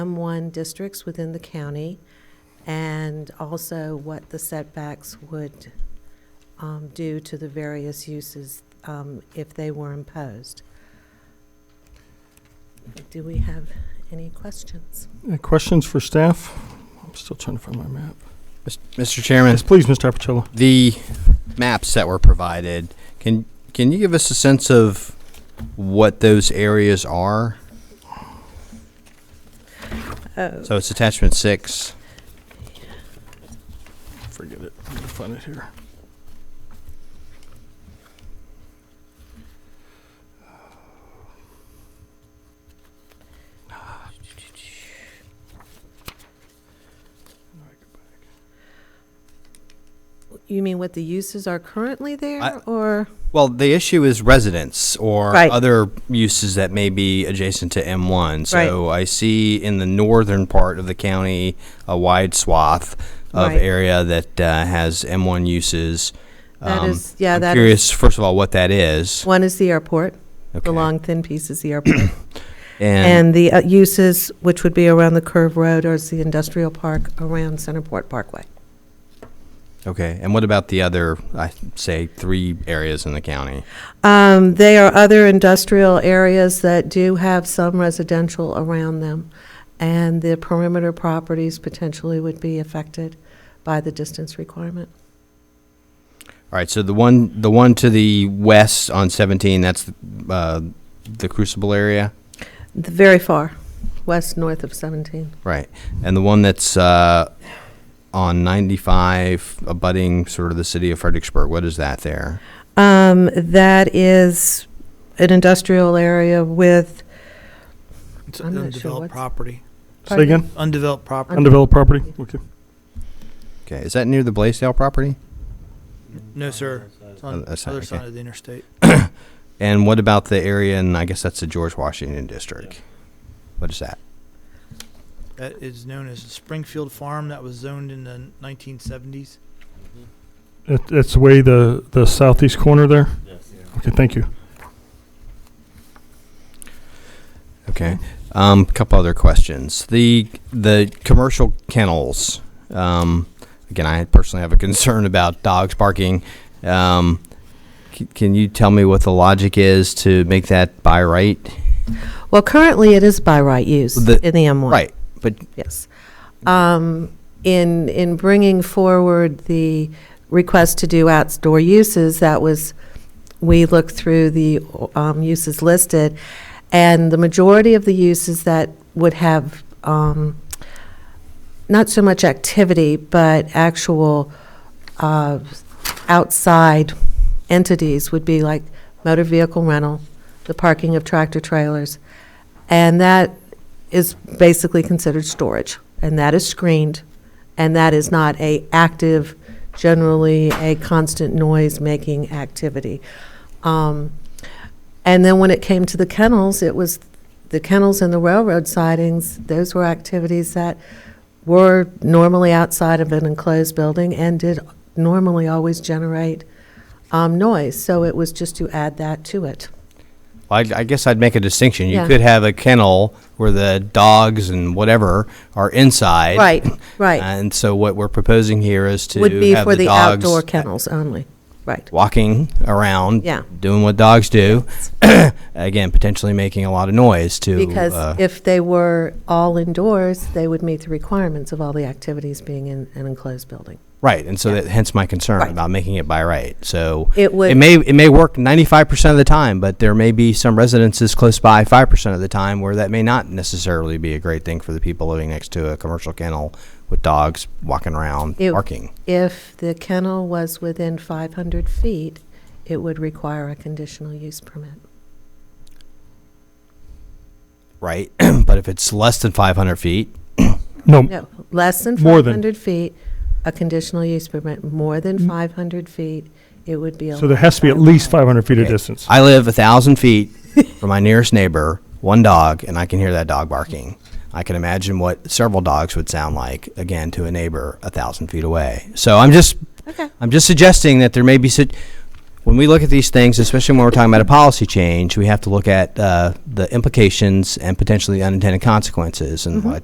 M1 districts within the county, and also what the setbacks would um, do to the various uses um, if they were imposed. Do we have any questions? Any questions for staff? I'm still trying to find my map. Mr. Chairman, Yes, please, Mr. Apicella. the maps that were provided, can, can you give us a sense of what those areas are? Oh, So it's attachment six. Forget it. I'm gonna find it here. you mean what the uses are currently I- there, or? Well, the issue is residence or Right. other uses that may be adjacent to M1. So I see in the northern part of the county a wide swath of Right. area that uh, has M1 uses. That Um, is, yeah, I'm that is, curious, first of all, what that is. one is the airport, Okay. the long thin piece is the airport. and, And the uh, uses, which would be around the curve road, or is the industrial park around Centerport Parkway. okay. And what about the other, I say, three areas in the county? Um, They are other industrial areas that do have some residential around them, and the perimeter properties potentially would be affected by the distance requirement. All right, so the one, the one to the west on 17, that's uh, the Crucible area, The Very far, west, north of 17. right? And the one that's uh, on 95, abutting sort of the city of Fredericksburg. What is that there? Um, That is an industrial area with, It's I'm not sure undeveloped what's- property. Say again? Undeveloped property. Undeveloped property? Okay. Okay, is that near the Blaisdell property? No, sir. It's Oh, on the that's not- other okay. side of the interstate. And what about the area, and I guess that's the George Washington District? What is that? That is known as Springfield Farm. That was zoned in the 1970s. It, it's way the, the southeast corner there? Okay, thank you. Okay. Um, couple other questions. The the commercial kennels. Um, again, I personally have a concern about dogs barking. Um, c- can you tell me what the logic is to make that by right? well, currently it is by right use in the The- M1. Right. But Yes. Um, In, in bringing forward the request to do outdoor uses, that was, we looked through the um, uses listed, and the majority of the uses that would have um, not so much activity, but actual uh, outside entities would be like motor vehicle rental, the parking of tractor trailers, and that is basically considered storage, and that is screened, and that is not a active, generally a constant noise-making activity. Um, And then when it came to the kennels, it was the kennels and the railroad sidings, those were activities that were normally outside of an enclosed building and did normally always generate um, noise, so it was just to add that to it. I, I guess I'd make a distinction. You Yeah. could have a kennel where the dogs and whatever are inside. Right, right. And so what we're proposing here is to Would be have for the the dogs outdoor kennels only, right. walking around, Yeah. doing what dogs do, again, potentially making a lot of noise to. uh, Because if they were all indoors, they would meet the requirements of all the activities being in an enclosed building. right, and so that hence my concern Right. about making it by right. So It would- may it may work ninety five percent of the time, but there may be some residences close by five percent of the time where that may not necessarily be a great thing for the people living next to a commercial kennel with dogs walking around It- barking. If the kennel was within 500 feet, it would require a conditional use permit. Right, but if it's less than five hundred feet, No, No, less than More than- Mm-hmm. 500 feet, a conditional use permit, more than 500 feet, it would be. so there has to be at allowed by least law. 500 feet of Okay. distance. I live a thousand feet from my nearest neighbor, one dog, and I can hear that dog barking. I can imagine what several dogs would sound like again to a neighbor a thousand feet away. So I'm just, Okay. I'm just suggesting that there may be sit- when we look at these things, especially when we're talking about a policy change, we have to look at uh, the implications and potentially unintended consequences. And what I